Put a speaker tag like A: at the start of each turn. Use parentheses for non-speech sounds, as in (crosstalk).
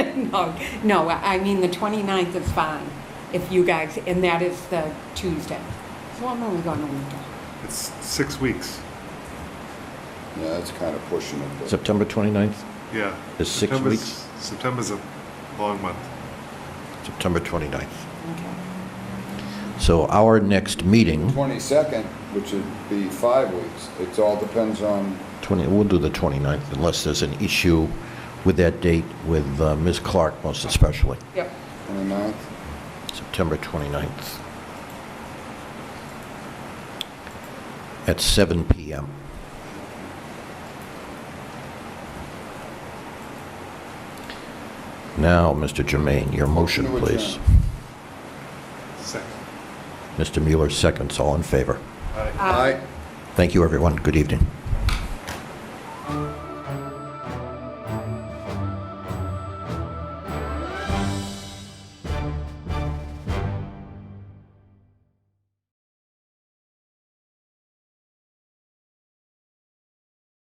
A: (laughs) No, no, I mean, the 29th is fine, if you guys, and that is the Tuesday. So I'm only going a week.
B: It's six weeks.
C: Yeah, that's kind of pushing it. but-
D: September 29th,
B: Yeah.
D: It's six
B: September's-
D: weeks?
B: September's a long month.
D: September 29th.
A: Okay.
D: So our next meeting,
C: 22nd, which would be five weeks, it all depends on,
D: 20, we'll do the 29th unless there's an issue with that date with uh, Ms. Clark most especially,
A: Yep.
C: 29th?
D: September 29th. At 7 PM. Now, Mr. Jermaine, your motion,
C: Motion to
D: please.
C: adjourn.
B: Second.
D: Mr. Mueller seconds. All in favor?
B: Aye.
C: Aye.
A: Uh,
D: Thank you, everyone. Good evening.